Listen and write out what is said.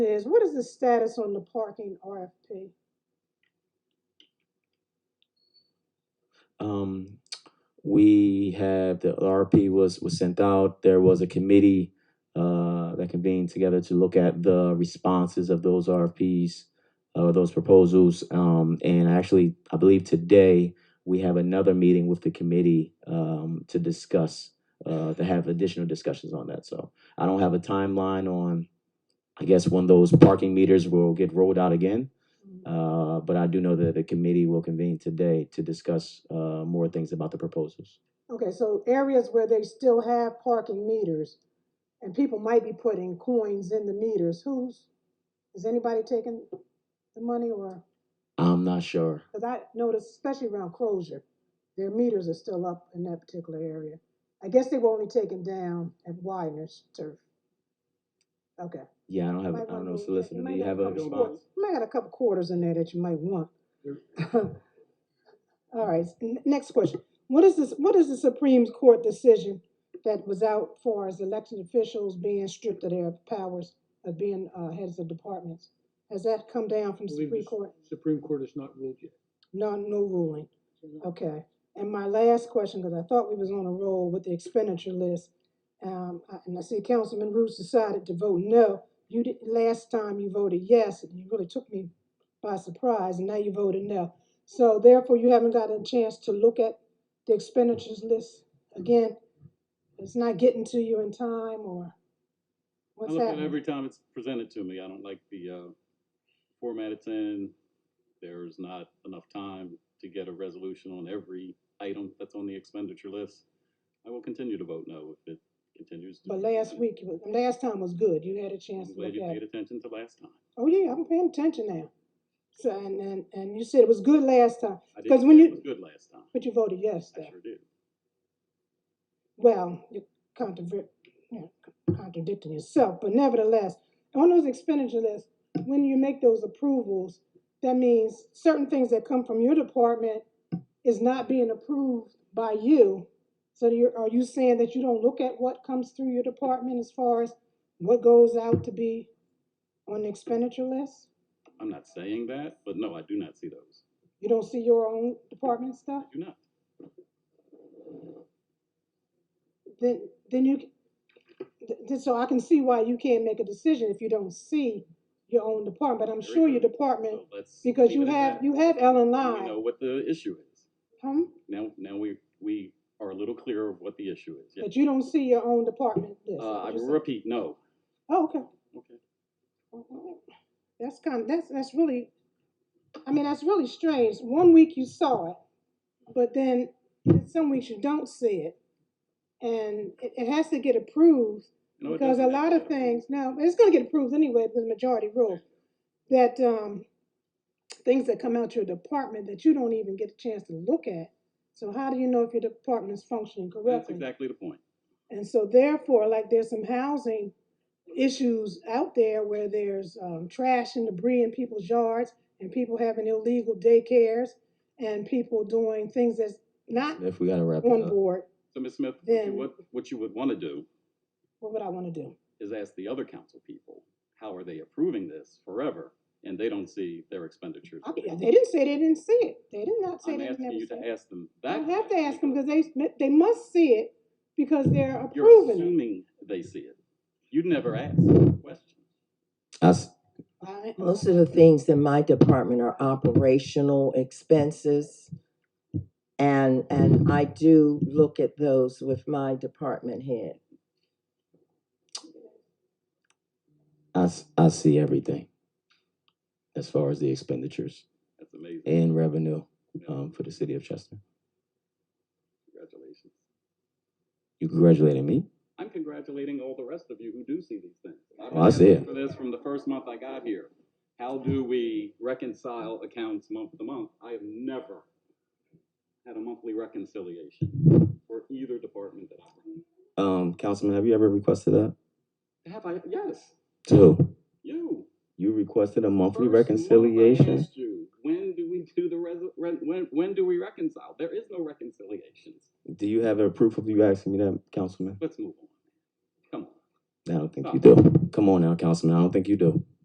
Says, what is the status on the parking RFP? Um, we have the RP was was sent out. There was a committee uh, that convened together to look at the responses of those RFPs uh, those proposals. Um, and actually, I believe today we have another meeting with the committee um, to discuss uh, to have additional discussions on that. So I don't have a timeline on. I guess when those parking meters will get rolled out again. Uh, but I do know that the committee will convene today to discuss, uh, more things about the proposals. Okay, so areas where they still have parking meters and people might be putting coins in the meters, who's, is anybody taking the money or? I'm not sure. Cause I noticed, especially around Crozier, their meters are still up in that particular area. I guess they were only taken down at Widener's turf. Okay. Yeah, I don't have, Might I don't wanna know, move that. solicitor, do might you got have a couple response? quarters- You might got a couple quarters in there that you might want. All right, s- n- next question. What is this, what is the Supreme Court decision that was out for as elected officials being stripped of their powers of being, uh, heads of departments? Has that come down from the believe Supreme the Court? Supreme Court has not ruled yet. No, no ruling. Okay, and my last question, because I thought we was on a roll with the expenditure list. Um, I- and I see Councilman Roots decided to vote no. You did, last time you voted yes, and you really took me by surprise, and now you voted no. So therefore, you haven't gotten a chance to look at the expenditures list again. It's not getting to you in time, or I what's look at it happening? every time it's presented to me. I don't like the uh, format it's in. There's not enough time to get a resolution on every item that's on the expenditure list. I will continue to vote no if it continues. to But be last presented. week, you was- last time was good. You had a chance I'm to look glad you at paid it. attention to last time. Oh, yeah, I'm paying attention now. So, and, and, and you said it was good last time. I 'Cause didn't when say it you- was good last time. But you voted yes, I though. sure did. Well, you're contrav- you know, contradicting yourself, but nevertheless, on those expenditure lists, when you make those approvals, that means certain things that come from your department is not being approved by you. So you're, are you saying that you don't look at what comes through your department as far as what goes out to be on the expenditure list? I'm not saying that, but no, I do not see those. You don't see your own department I stuff? do not. Then, then you, Th- th- so I can see why you can't make a decision if you don't see your own department, but I'm Very sure your good. department, So let's because leave you it at have, that. you have L and Now We know I, what the issue is. huh? Now, now we, we are a little clearer of what the issue is. Yes. But you don't see your own department list. Uh, I Just- will repeat, no. Oh, okay. Okay. Alright. That's kind, that's, that's really, I mean, that's really strange. One week you saw it, but then some weeks you don't see it. And it, it has to get approved No, it Because a doesn't have lot to of get approved. things, now, it's gonna get approved anyway, because majority rule, that, um, things that come out your department that you don't even get a chance to look at. So how do you know if your department is functioning That's correctly? exactly the point. And so therefore, like, there's some housing issues out there where there's, um, trash and debris in people's yards, and people having illegal daycares, and people doing things that's not If we gotta wrap it on up. board, So, Ms. Smith, what you- Then- what, what you would want to do what would I wanna do? is ask the other council people, how are they approving this forever? And they don't see their expenditures. I, they didn't say they didn't see it, they did not say I'm they never asking you seen it. to ask them I that. don't have to question ask them because they, they must see it because they're because You're approving it. assuming they see it. You'd never ask the question. I s- I- Most of the things in my department are operational expenses. And, and I do look at those with my department head. I, s- I see everything as far as the expenditures That's amazing. and revenue, um, for the city of Chester. Congratulations. You congratulating me? I'm congratulating all the rest of you who do see these things. I've been Oh, I see asking it. For this from the first month I got here. How do we reconcile accounts month to month? I have never had a monthly reconciliation for either department that I run. Um, Councilman, have you ever requested that? Have I? Yes, To who? you. You requested a monthly First month I reconciliation? asked you, When do we do the res, re- when, when do we reconcile? There is no reconciliations. Do you have a proof of you asking me that, Councilman? Let's move on. Come on. I don't think you do. Come on now, Councilman, I don't think you do.